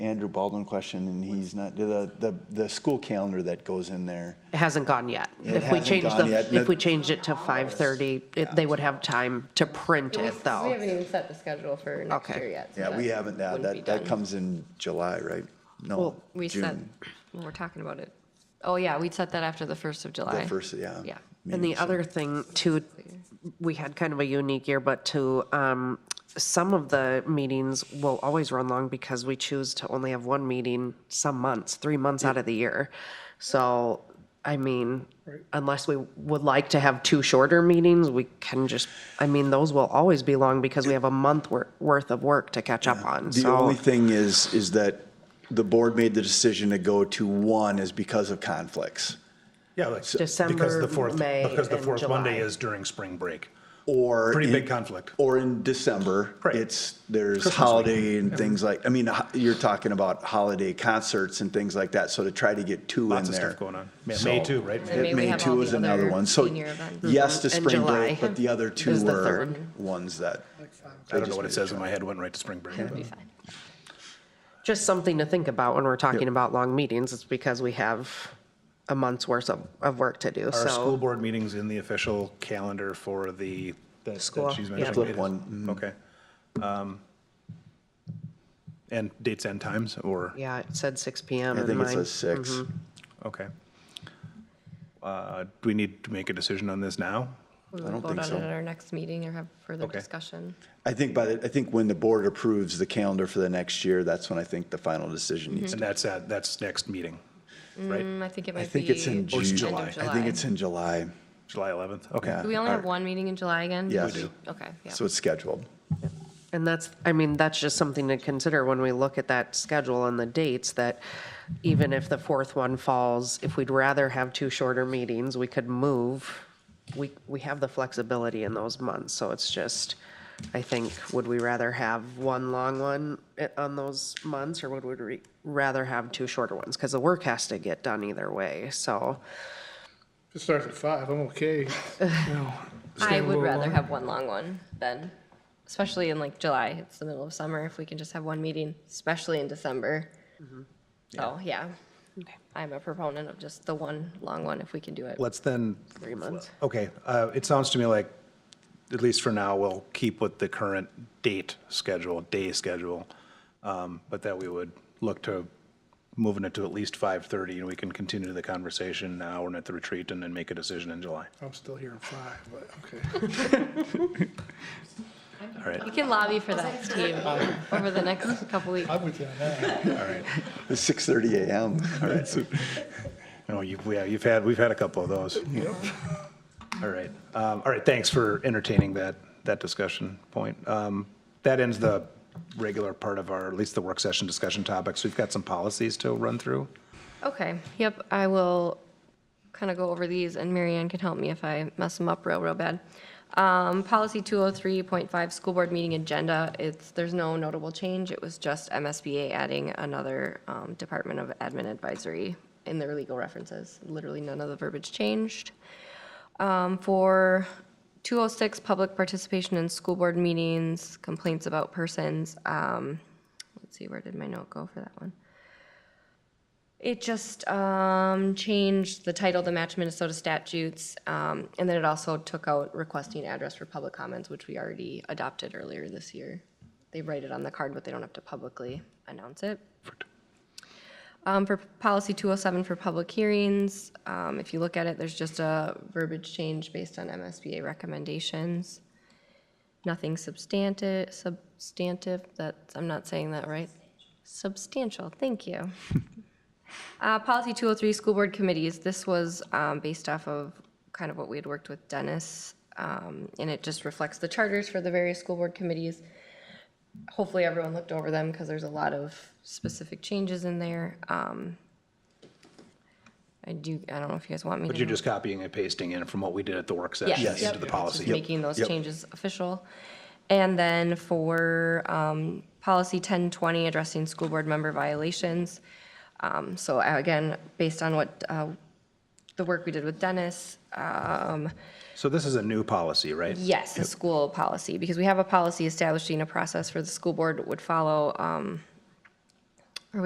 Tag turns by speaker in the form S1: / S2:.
S1: Andrew Baldwin question, and he's not, the, the, the school calendar that goes in there.
S2: It hasn't gone yet.
S1: It
S2: If we
S1: hasn't
S2: change
S1: gone yet, and
S2: the, if we
S1: it-
S2: changed it to 5:30, it- they would have time to print it,
S3: We
S2: though.
S3: haven't even set the schedule for next
S2: Okay.
S3: year yet. so
S1: Yeah,
S3: that
S1: we haven't, yeah,
S3: wouldn't be
S1: that, that
S3: done.
S1: comes in July, right? No,
S2: Well,
S3: We said,
S1: June,
S3: well, we're talking about it. Oh, yeah, we'd set that after the first of July.
S1: the first, yeah.
S3: Yeah.
S2: And the other thing too, we had kind of a unique year, but to, um, some of the meetings will always run long because we choose to only have one meeting some months, three months out of the year. So, I mean, unless we would like to have two shorter meetings, we can just, I mean, those will always be long because we have a month wor- worth of work to catch up on,
S1: The
S2: so.
S1: only thing is, is that the board made the decision to go to one is because of conflicts.
S4: Yeah, like, because
S2: December,
S4: the fourth,
S2: May,
S4: because the
S2: and
S4: fourth Monday
S2: July.
S4: is during spring break.
S1: Or.
S4: Pretty
S1: in-
S4: big conflict.
S1: Or in December,
S4: Right.
S1: it's, there's
S4: Christmas
S1: holiday and things like, I mean, ho- you're talking about holiday concerts and things like that, so to try to get two in there.
S4: Lots of stuff going on. Yeah, May
S1: So-
S4: too, right?
S3: And May we
S1: May
S3: have all
S1: two
S3: the
S1: is another
S3: other
S1: one, so
S3: senior events.
S1: yes to
S2: Mhm. And
S1: spring
S2: July
S1: break, but the other two
S2: is the
S1: were
S2: third.
S1: ones that.
S4: I don't know what it says in my head, went right to spring break. but-
S2: Just something to think about when we're talking about long meetings, it's because we have a month's worth of, of work to do, so.
S4: Are school board meetings in the official calendar for the, that that
S2: School,
S4: she's
S2: yeah.
S4: mentioning?
S1: Flip
S4: It is.
S1: one, mhm.
S4: Okay. Um, And dates and times, or,
S2: Yeah, it said six PM
S1: I
S2: in
S1: think it
S2: mine.
S1: says six.
S3: Mm-hmm.
S4: okay. Uh, Do we need to make a decision on this now?
S3: We
S1: don't
S3: would
S1: think
S3: vote on
S1: so.
S3: it at our next meeting or have further
S4: Okay.
S3: discussion.
S1: I think by, the I think when the board approves the calendar for the next year, that's when I think the final decision needs.
S2: Mm.
S4: And that's, at that's next meeting, right?
S3: Mm, I think it
S1: I
S3: might be.
S1: think it's in
S3: end of
S1: June.
S4: July.
S1: I think it's in July,
S4: July 11th? Okay.
S1: Yeah.
S3: Do we only have one meeting in July again?
S1: Yes. We do.
S3: Okay, yeah.
S1: so it's scheduled.
S2: And that's, I mean, that's just something to consider when we look at that schedule and the dates, that even if the fourth one falls, if we'd rather have two shorter meetings, we could move. We, we have the flexibility in those months, so it's just, I think, would we rather have one long one eh, on those months, or would we re- rather have two shorter ones? Because the work has to get done either way, so.
S5: If it starts at five, I'm okay.
S3: I would rather have one long one than, especially in like July, it's the middle of summer, if we can just have one meeting, especially in December. So, yeah. I'm a proponent of just the one long one if we can do it.
S4: Let's then,
S2: Three months.
S4: okay, uh, it sounds to me like, at least for now, we'll keep with the current date schedule, day schedule, um, but that we would look to moving it to at least 5:30, and we can continue the conversation now and at the retreat, and then make a decision in July.
S5: I'm still here at five, but okay.
S4: All right,
S3: We can lobby for that, Steve, over the next couple weeks.
S5: I'm with you on that.
S4: all right.
S1: It's six thirty AM. All right, so
S4: No, you've, yeah, you've had, we've had a couple of those. All right, um, all right, thanks for entertaining that, that discussion point. Um, That ends the regular part of our, at least the work session discussion topics. We've got some policies to run through.
S3: Okay, yep, I will kind of go over these, and Marianne can help me if I mess them up real, real bad. Um, Policy 203.5, School Board Meeting Agenda, it's, there's no notable change, it was just MSBA adding another um, Department of Admin Advisory in their legal references, literally none of the verbiage changed. Um, For 206, Public Participation in School Board Meetings, Complaints About Persons, um, let's see, where did my note go for that one? It just um, changed the title, the Match Minnesota statutes, um, and then it also took out requesting address for public comments, which we already adopted earlier this year. They write it on the card, but they don't have to publicly announce it. Um, For Policy 207 for public hearings, um, if you look at it, there's just a verbiage change based on MSBA recommendations. Nothing substantive, substantive, that, I'm not saying that right. Substantial, thank you. Uh, Policy 203, School Board Committees, this was um, based off of kind of what we had worked with Dennis, um, and it just reflects the charters for the various school board committees. Hopefully, everyone looked over them, because there's a lot of specific changes in there. Um, I do, I don't know if you guys want me to.
S4: But you're just copying and pasting in from what we did at the work
S3: Yes.
S4: session
S3: Mm-hmm. Yes.
S4: into the
S3: Yep.
S4: policy.
S3: Just making those
S1: Yep.
S3: changes official. And then for um, policy 1020, addressing school board member violations. Um, So uh, again, based on what, uh, the work we did with Dennis, uh,
S4: So this is a new policy, right?
S3: Yes, a school policy, because we have a policy establishing a process for the school board would follow um,